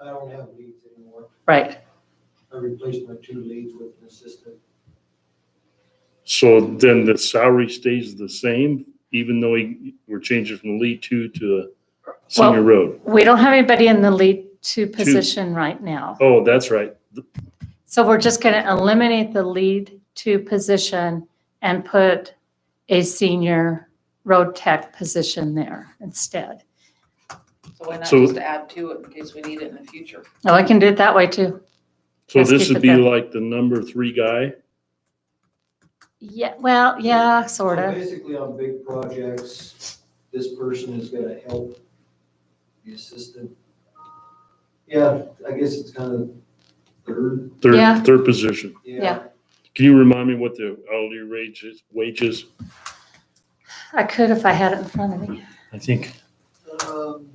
I don't have leads anymore. Right. I replaced my two leads with an assistant. So then the salary stays the same, even though he- we're changing from lead two to a senior road? We don't have anybody in the lead two position right now. Oh, that's right. So we're just going to eliminate the lead two position and put a senior road tech position there instead. So why not So- just add to it in case we need it in the future? Oh, I can do it that way too. So Let's this keep it would be that- like the number three guy? Yeah, well, yeah, sort So of. Basically, on big projects, this person is gonna help the assistant. Yeah, I guess it's kind of third, Yeah. Third, third position. yeah. Yeah. Can you remind me what the hourly wages, wages? I could if I had it in front of me. I think, Um,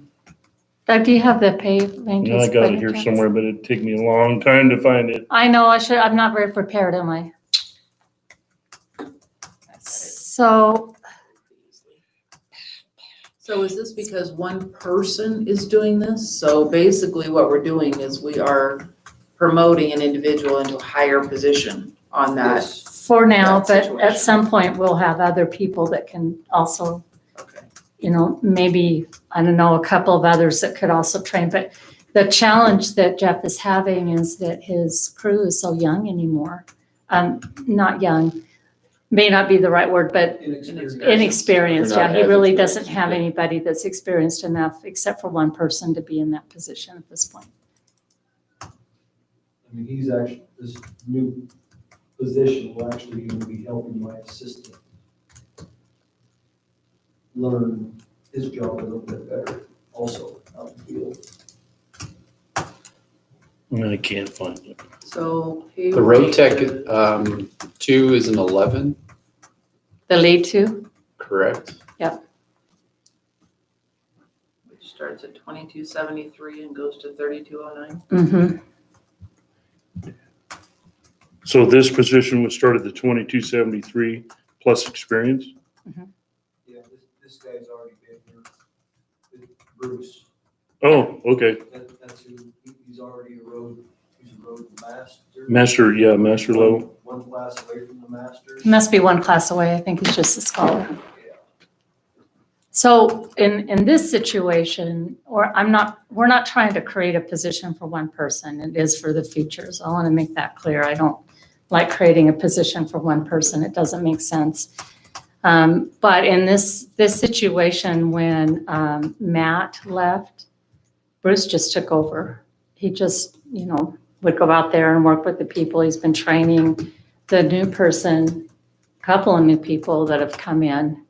Doug, do you have the pay you rankings? know, I got it by here chance? somewhere, but it'd take me a long time to find it. I know, I should, I'm not very prepared, am I? So, So is this because one person is doing this? So basically what we're doing is we are promoting an individual into a higher position on that. yes. for now, That but at situation. some point, we'll have other people that can also Okay. you know, maybe, I don't know, a couple of others that could also train. But the challenge that Jeff is having is that his crew is so young anymore. Um, not young, may not be the right word, but Inexperienced. inexperienced. They're not Yeah, he as really doesn't experienced, have yeah. anybody that's experienced enough except for one person to be in that position at this point. I mean, he's actually, this new position will actually even be helping my assistant learn his job a little bit better also out in the field. No, I can't find it. So. The road tech, um, two is an eleven, The lead two, correct? Which starts at twenty-two seventy-three and goes to thirty-two oh nine. mm-hmm, So this position was started at twenty-two seventy-three plus experience? Yeah, this, this guy's already been here. It's Bruce, Oh, okay. that, that's who, he- he's already a road, he's a road master. Master, yeah, master level. One class away from the masters. must be one class away. I think he's just a scholar. Yeah. So in, in this situation, or I'm not, we're not trying to create a position for one person. It is for the future. So I want to make that clear. I don't like creating a position for one person. It doesn't make sense. Um, But in this, this situation, when um, Matt left, Bruce just took over. He just, you know, would go out there and work with the people. He's been training the new person, couple of new people that have come in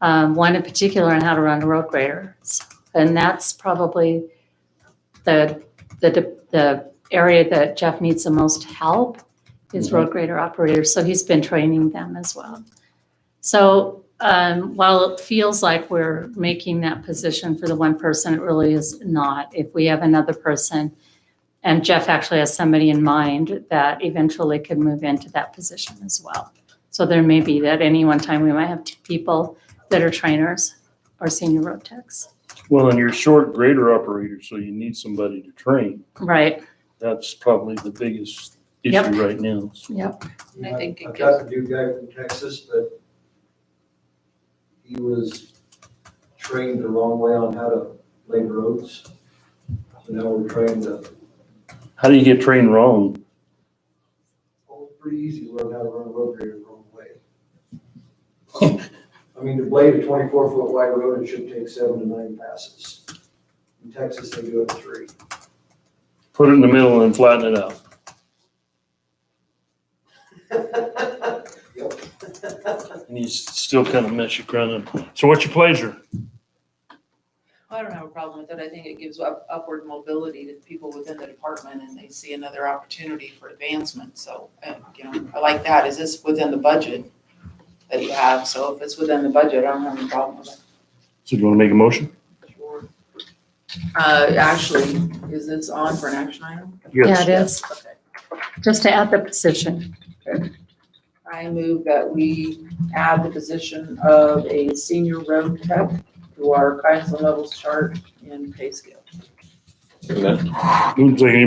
um, one in particular on how to run a road grader. S- And that's probably the, the, de- the area that Jeff needs the most help is road grader operators. So he's been training them as well. So um, while it feels like we're making that position for the one person, it really is not. If we have another person, and Jeff actually has somebody in mind that eventually could move into that position as well. So there may be that any one time we might have two people that are trainers or senior road techs. Well, and you're short grader operator, so you need somebody to train. Right, That's probably the biggest Yep. issue right now. yep. And I think it I've got the new guy from Texas, but he was trained the wrong way on how to lay roads. So now we're trying to, How do you get trained wrong? oh, it's pretty easy to learn how to run a road grader the wrong way. I mean, to blade a twenty-four foot wide road, it should take seven to nine passes. In Texas, they do it in three. Put it in the middle and flatten it out. And you still kind of mess your ground up. So what's your pleasure? I don't have a problem with it. I think it gives up- upward mobility to people within the department and they see another opportunity for advancement. So, uh, you know, I like that. Is this within the budget that you have? So if it's within the budget, I don't have a problem with So do you want to make a motion? it. Sure. Uh, actually, is this on for an action item? Yeah, it is, Okay. just to add the position. I move that we add the position of a senior road tech to our council levels chart and pay scale. Isn't that Seems like